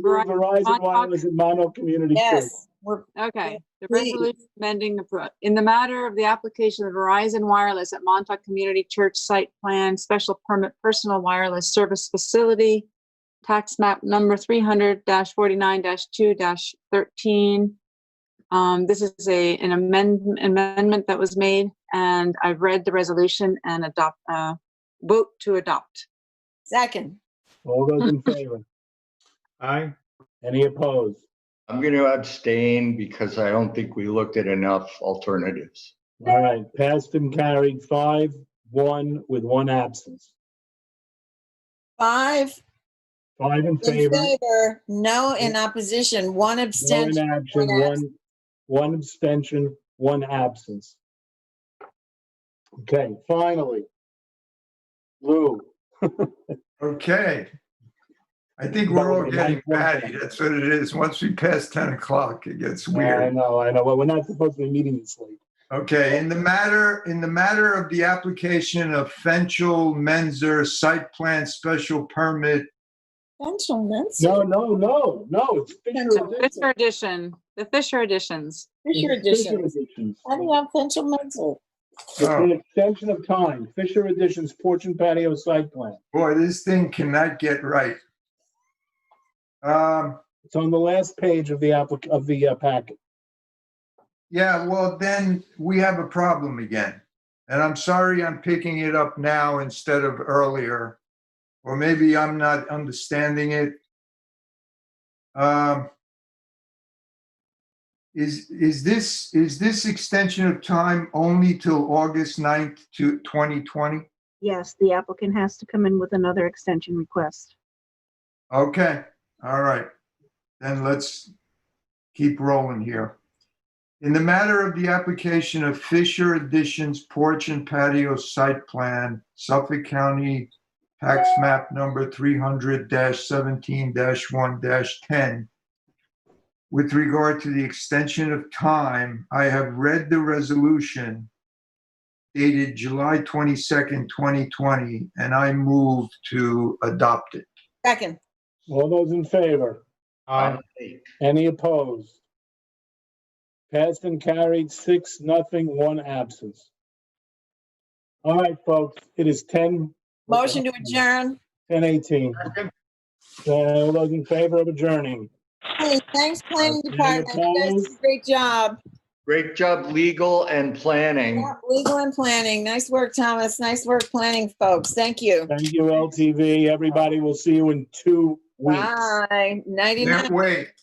Verizon Hot Wireless and Mono Community Church. Yes, we're, Okay, the Please. resolution amending the, pro- in the matter of the application of Verizon Wireless at Montauk Community Church Site Plan Special Permit Personal Wireless Service Facility, tax map number three hundred forty-nine two thirteen. Um, this is a, an amendment, amendment that was made, and I've read the resolution and adopt, uh, vote to adopt. second, All those in favor? Aye. Any opposed? I'm going to abstain because I don't think we looked at enough alternatives. All right, passed and carried, five, one, with one absence. five Five in in favor, no favor, no in opposition, one in abstention. action, one one, one abstention, one absence. Okay, finally. Lou, Okay. I think we're all Probably getting like one batty. thing. That's what it is. Once we pass 10 o'clock, it gets I weird. know, I know, but we're not supposed to be meeting this late. Okay, in the matter, in the matter of the application of Fenchel Menzer Site Plan Special Permit, No, no, no, no, it's Fisher The Edition. Fisher edition, the Fisher editions. Fisher It's Fisher edition. Editions. How do you have Fisher Menzel? It's Oh. an extension of time, Fisher Editions porch and patio site plan. boy, this thing cannot get right. Um, It's on the last page of the applic, of the uh, packet. yeah, well, then we have a problem again. And I'm sorry I'm picking it up now instead of earlier, or maybe I'm not understanding it. Um, Is, is this, is this extension of time only till August 9th to 2020? Yes, the applicant has to come in with another extension request. Okay, all right. Then let's keep rolling here. In the matter of the application of Fisher Additions Porch and Patio Site Plan, Suffolk County Tax Map Number 300-17-1-10, with regard to the extension of time, I have read the resolution dated July 22nd, 2020, and I move to adopt it. Second, All those in favor? Aye. Any opposed? Passed and carried, six, nothing, one absence. All right, folks, it is 10. motion to adjourn. 10:18. Second. Uh, All those in favor of adjourning? Hey, thanks, planning Any department. You guys did a Great job. Great job, legal and planning. Yeah, Legal and planning. Nice work, Thomas. Nice work, planning folks. Thank you. Thank you, LTV. Everybody, we'll see you in two weeks. Bye. Nighty night. Can't wait.